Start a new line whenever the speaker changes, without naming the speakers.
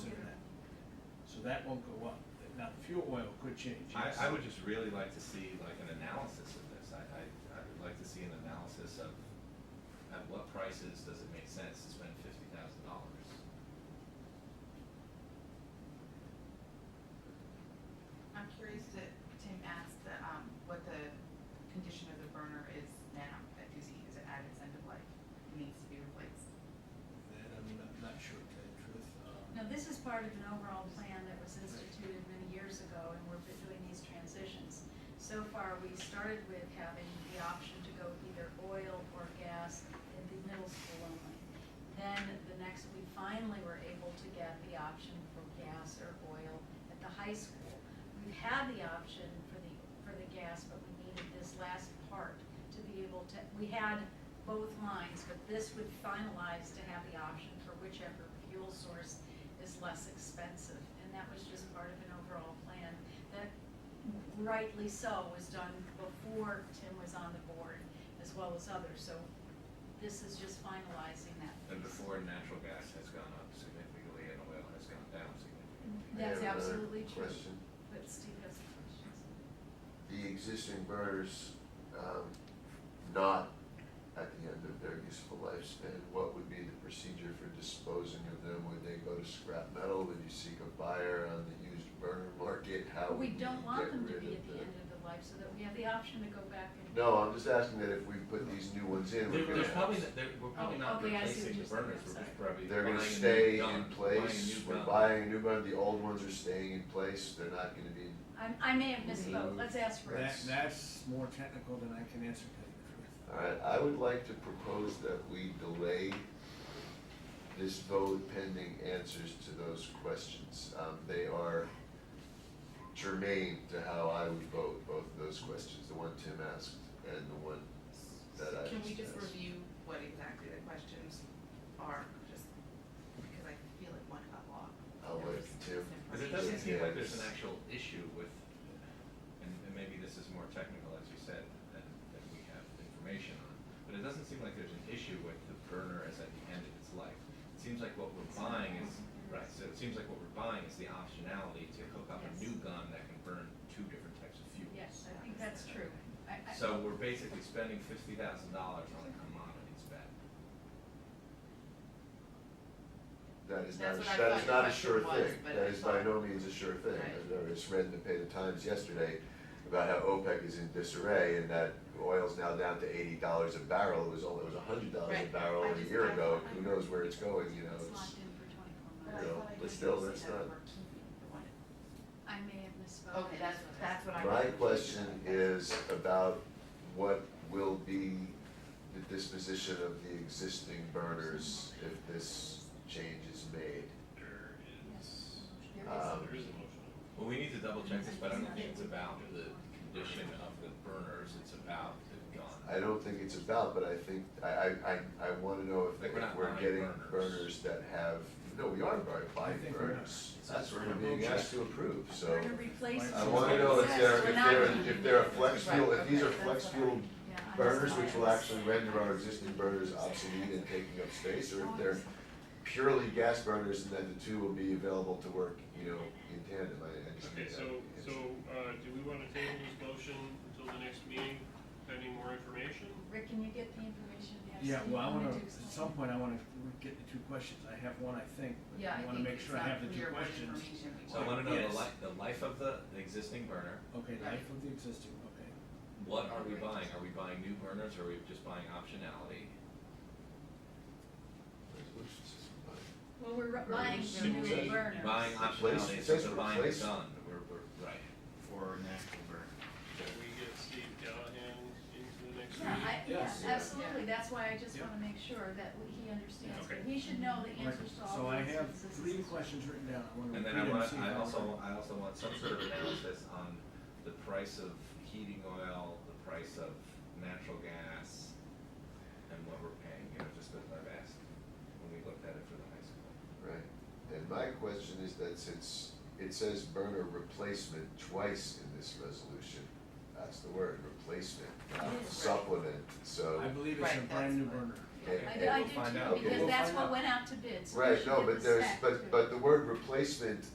so that won't go up. Now, the fuel oil could change.
I,
yes.
I would just really like to see like an analysis of this. I, I, I would like to see an analysis of at what prices does it make sense to spend fifty thousand dollars?
I'm curious that Tim asked the, um, what the condition of the burner is now, that is, is it at its end of life, It needs to be replaced.
That I'm not, not sure, to tell you the truth. Um,
Now, this is part of an overall plan that was instituted many years ago, and we're doing these transitions. So far, we started with having the option to go either oil or gas in the middle school only. Then the next, we finally were able to get the option for gas or oil at the high school. We've had the option for the, for the gas, but we needed this last part to be able to, we had both lines, but this would finalize to have the option for whichever fuel source is less expensive. And that was just part of an overall plan that rightly so was done before Tim was on the board as well as others. So this is just finalizing that.
And
piece.
before natural gas has gone up significantly and oil has gone down significantly.
I
That's
have another
absolutely true.
Question,
But Steve has some questions.
the existing burners, um, not at the end of their useful lifespan, what would be the procedure for disposing of them? Would they go to scrap metal, would you seek a buyer on the used burner market, how
But
would
we
you get rid
don't want them to be at
of
the
them?
end of the life so that we have the option to go back and.
No, I'm just asking that if we put these new ones in,
They're,
we're gonna
they're probably,
have,
not- they're, we're probably
Oh,
not
okay, I see
replacing the burners,
what you're saying, I'm
we're just
sorry.
probably
they're
buying a
gonna
new
stay in
gun, buying a
place,
new
we're
gun.
buying a new burner, the old ones are staying in place, they're not gonna be,
I, I may have misspoke. Let's ask Rich.
That, that's more technical than I can answer, to tell you the truth.
Alright, I would like to propose that we delay this vote pending answers to those questions. Um, they are germane to how I would vote, both of those questions, the one Tim asked and the one that I just asked.
Can we just review what exactly the questions are, just because I feel like one got lost.
I'll
There was
let Tim-
Cause it doesn't seem like there's an actual issue with, and, and maybe this is more technical, as you said, than, than we have information on, but it doesn't seem like there's an issue with the burner as at the end of its life. It seems like what we're buying is, right, so it seems like what we're buying is the optionality to hook up a
Yes.
new gun that can burn two different types of fuels.
Yes, I think that's true. I, I,
So we're basically spending fifty thousand dollars on a commodities bet.
That is not,
That's
a-
what I
that
thought
is
your question
not a sure
was,
thing,
but
that
I
is by
thought-
no means a sure thing.
Right.
I just read in the Pay the Times yesterday about how OPEC is in disarray and that oil's now down to eighty dollars a barrel, it was only, it was hundred dollars a
Right.
barrel
I
a
just-
year
I-
ago,
I-
who knows where it's going, you know,
it's
it's,
locked in for twenty-four
But I
months.
Yeah.
thought I
but
did
still,
say
that's
that
not-
we're keeping the one-
I may have misspoken.
Okay, that's, that's what I.
My
was-
question is about what will be the disposition of the existing burners if this change is made?
There is,
There
Um,
there is a motion.
Well, we need to double check this, but I don't think it's about the condition of the burners, it's about the gun.
I don't think it's about, but I think, I, I, I, I wanna know if,
Like, we're not
if we're
buying
getting
burners.
burners that have, no, we are bu-
I
buying
think we are.
burners.
It's
That's
a-
what we're being asked to approve, so.
We're gonna replace it.
I
It's
wanna
like-
know if
Says
they're,
we're
if
not
they're,
gonna
if
do
they're a
that.
flex
Right,
fuel, if these
okay,
are
that's
flex
what I-
fuel
Yeah, I
burners,
missed
which
that.
will actually render our existing burners obsolete and taking up space, or if they're purely gas burners, and then the two will be available to work, you know, in tandem, I, I just
Okay,
need that
so, so,
answer.
uh, do we wanna table this motion until the next meeting, pending more information?
Rick, can you get the information? Yes,
Yeah,
do you
well, I
wanna
wanna, at
do
some
something?
point, I wanna get the two questions, I have one, I think, but
Yeah,
I
I
wanna
think
make
it's
sure I have
not
the two
clear what
questions.
information we
So I
want.
wanna know
Yes.
the life, the life of the, the existing burner,
Okay, life of the existing, okay.
what are we buying, are we buying new burners, or are we just buying optionality?
Resolutions is fine.
Well, we're re-
Or
buying
just
the
simply
new burners.
Buying
Replace-
optionality,
it
so
says
we're buying a
replace.
gun, we're, we're, right.
for natural burn.
Can we get Steve Callahan into the next
Yeah,
meeting?
I, yeah,
Yes.
absolutely. That's why I just
Yeah.
wanna make sure that we- he understands.
Okay.
He should know the
Right,
answers to
So
all
I
the
have
instances.
three questions written down, I wanna repeat
And then I
them,
want,
see
I
how-
also, I also want some sort of analysis on the price of heating oil, the price of natural gas, and what we're paying, you know, just as I've asked when we looked at it for the high school.
Right, and my question is that since it says burner replacement twice in this resolution, that's the word, replacement, not
It is, right.
supplement, so.
I believe it's
Right,
a brand new
that's fine.
burner.
and-
I,
and-
I
We'll find out.
do too,
Okay.
because
We'll
that's
find
what
out.
went out to bid, so we
Right,
should
no,
get
but
the
there's,
spec, too.
but, but the word replacement